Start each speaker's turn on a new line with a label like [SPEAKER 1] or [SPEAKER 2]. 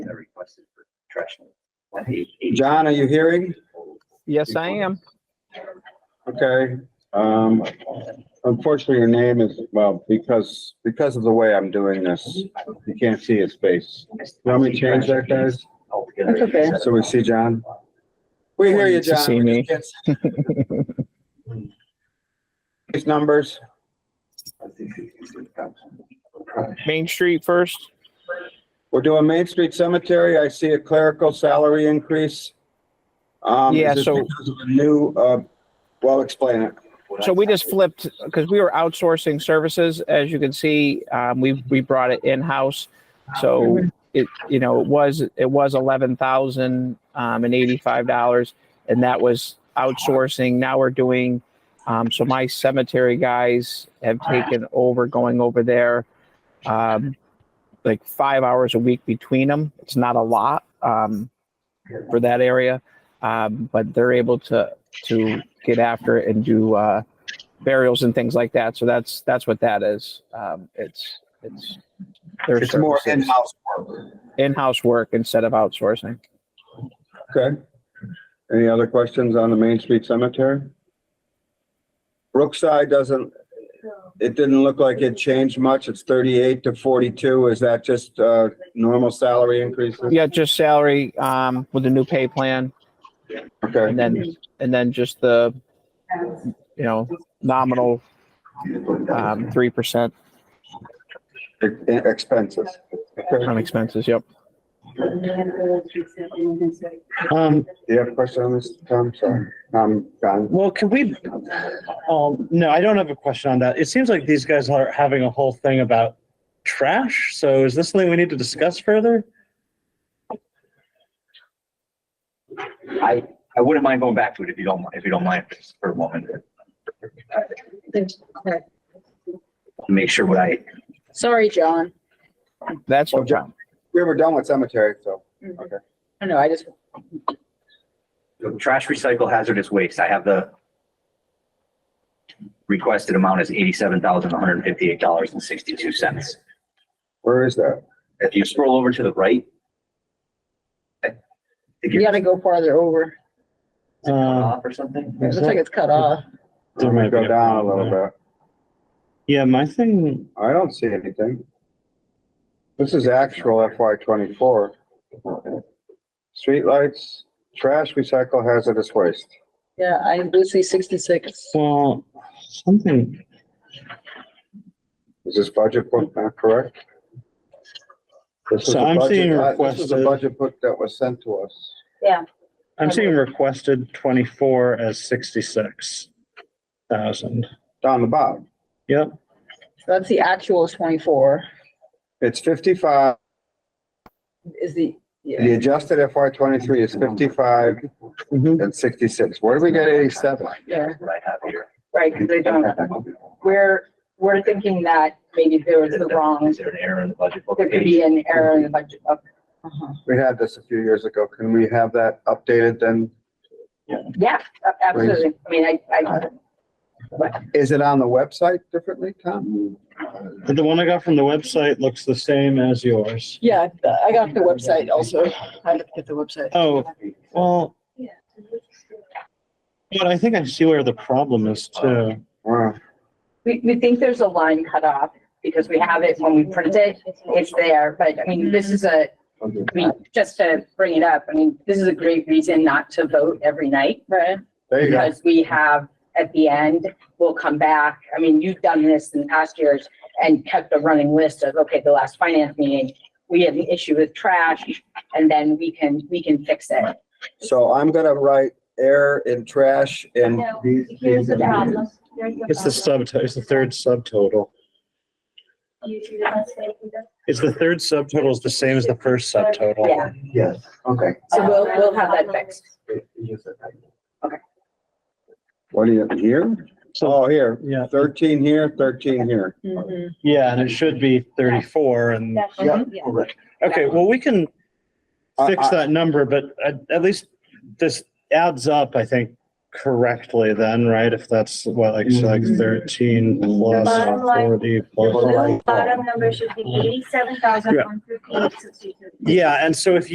[SPEAKER 1] John, are you hearing?
[SPEAKER 2] Yes, I am.
[SPEAKER 1] Okay, um, unfortunately, your name is, well, because, because of the way I'm doing this, you can't see his face. You want me to change that, guys?
[SPEAKER 3] That's okay.
[SPEAKER 1] So we see John? We hear you, John.
[SPEAKER 2] To see me.
[SPEAKER 1] These numbers,
[SPEAKER 2] Main Street first.
[SPEAKER 1] we're doing Main Street Cemetery. I see a clerical salary increase. Um, is
[SPEAKER 2] Yeah,
[SPEAKER 1] this
[SPEAKER 2] so-
[SPEAKER 1] because of a New, uh, well, explain it.
[SPEAKER 2] So we just flipped because we were outsourcing services. As you can see, um, we, we brought it in-house. So it, you know, it was, it was eleven thousand, um, and eighty-five dollars. And that was outsourcing. Now we're doing, um, so my cemetery guys have taken over, going over there. Um, like five hours a week between them. It's not a lot, um, for that area. Um, but they're able to, to get after it and do uh, burials and things like that. So that's that's what that is. Um, it's it's their
[SPEAKER 1] It's more
[SPEAKER 2] in
[SPEAKER 1] in-house work.
[SPEAKER 2] house work instead of outsourcing.
[SPEAKER 1] Okay. Any other questions on the Main Street Cemetery? Brookside doesn't, it didn't look like it changed much. It's thirty-eight to forty-two. Is that just, uh, normal salary increases?
[SPEAKER 2] Yeah, just salary um, with the new pay plan,
[SPEAKER 1] Okay,
[SPEAKER 2] and then and then just the you know nominal um, three percent
[SPEAKER 1] E- expenses. Okay.
[SPEAKER 2] on expenses. Yep.
[SPEAKER 1] Um, you have a question on this, Tom? Sorry, Um, I'm gone.
[SPEAKER 4] Well, can we, um, no, I don't have a question on that. It seems like these guys are having a whole thing about trash. So is this something we need to discuss further?
[SPEAKER 3] I, I wouldn't mind going back to it if you don't, if you don't mind for a moment. Make sure what I,
[SPEAKER 5] Sorry, John.
[SPEAKER 2] That's
[SPEAKER 1] Well, John, we were done with cemetery, so, okay.
[SPEAKER 5] I know, I just,
[SPEAKER 3] trash recycle hazardous waste, I have the requested amount is eighty-seven thousand, one hundred and fifty-eight dollars and sixty-two cents.
[SPEAKER 1] Where is that?
[SPEAKER 3] If you scroll over to the right. I think
[SPEAKER 5] you
[SPEAKER 3] you're
[SPEAKER 5] gotta go farther over.
[SPEAKER 4] Uh,
[SPEAKER 3] off or something.
[SPEAKER 5] It looks like it's cut off.
[SPEAKER 4] There
[SPEAKER 1] Let
[SPEAKER 4] might
[SPEAKER 1] me
[SPEAKER 4] be
[SPEAKER 1] go
[SPEAKER 4] a
[SPEAKER 1] down a
[SPEAKER 4] problem
[SPEAKER 1] little bit.
[SPEAKER 4] yeah, my thing,
[SPEAKER 1] I don't see anything. This is actual FY twenty-four. Streetlights, trash, recycle, hazardous waste.
[SPEAKER 5] Yeah, I do see sixty-six.
[SPEAKER 4] well, something,
[SPEAKER 1] Is this budget book not correct? This is the
[SPEAKER 4] So I'm
[SPEAKER 1] budget-
[SPEAKER 4] seeing
[SPEAKER 1] uh, This is a
[SPEAKER 4] requested-
[SPEAKER 1] budget book that was sent to us.
[SPEAKER 4] I'm seeing requested twenty-four as sixty-six thousand.
[SPEAKER 1] Down the bottom,
[SPEAKER 4] Yep,
[SPEAKER 5] That's the actual is twenty-four,
[SPEAKER 1] it's fifty-five,
[SPEAKER 5] is the,
[SPEAKER 1] the
[SPEAKER 5] yeah,
[SPEAKER 1] adjusted FY twenty-three is fifty-five
[SPEAKER 4] Mm-hmm.
[SPEAKER 2] Mhm.
[SPEAKER 1] and sixty-six. Where do we get eighty-seven?
[SPEAKER 5] yeah,
[SPEAKER 3] What I have here.
[SPEAKER 5] right, because they don't, we're, we're thinking that maybe there was the wrong,
[SPEAKER 3] Is there an error in the budget book
[SPEAKER 5] there could
[SPEAKER 3] page?
[SPEAKER 5] be an error in the budget. Okay. Uh-huh.
[SPEAKER 1] We had this a few years ago. Can we have that updated then?
[SPEAKER 5] Yeah, a- absolutely, I mean, I, I,
[SPEAKER 1] Is it on the website differently, Tom?
[SPEAKER 4] the one I got from the website looks the same as yours.
[SPEAKER 5] yeah, I got the website also, I looked at the website.
[SPEAKER 4] Oh, well. But I think I see where the problem is too.
[SPEAKER 1] Wow.
[SPEAKER 5] We, we think there's a line cut off, because we have it when we print it, it's there, but I mean, this is a, I mean, just to bring it up, I mean, this is a great reason not to vote every night. Right.
[SPEAKER 1] There you go.
[SPEAKER 5] Because we have, at the end, we'll come back, I mean, you've done this in past years and kept a running list of, okay, the last finance meeting, we had an issue with trash, and then we can, we can fix it.
[SPEAKER 1] So I'm gonna write air and trash and
[SPEAKER 6] No,
[SPEAKER 1] these.
[SPEAKER 6] here's the
[SPEAKER 1] these-
[SPEAKER 6] problem. Here's the
[SPEAKER 4] It's the
[SPEAKER 6] problem.
[SPEAKER 4] sub, it's the third subtotal.
[SPEAKER 6] You do not say either.
[SPEAKER 4] Is the third subtotal is the same as the first subtotal?
[SPEAKER 5] Yeah.
[SPEAKER 1] Yes, okay.
[SPEAKER 5] So we'll, we'll have that fixed.
[SPEAKER 1] What do you, here?
[SPEAKER 4] So,
[SPEAKER 1] Oh, here,
[SPEAKER 4] yeah,
[SPEAKER 1] thirteen here, thirteen here.
[SPEAKER 6] Hmm.
[SPEAKER 4] yeah, and it should be thirty-four and,
[SPEAKER 6] That's
[SPEAKER 1] Yeah.
[SPEAKER 6] right, yeah.
[SPEAKER 4] okay, well, we can
[SPEAKER 1] I-
[SPEAKER 4] fix
[SPEAKER 1] I-
[SPEAKER 4] that number, but at, at least this adds up, I think, correctly then, right? If that's what, like, so
[SPEAKER 1] Mm-hmm.
[SPEAKER 4] like thirteen plus
[SPEAKER 6] Bottom line.
[SPEAKER 4] forty plus.
[SPEAKER 6] The bottom number should be eighty-seven thousand one fifty-eight sixty-two.
[SPEAKER 4] Yeah, and so if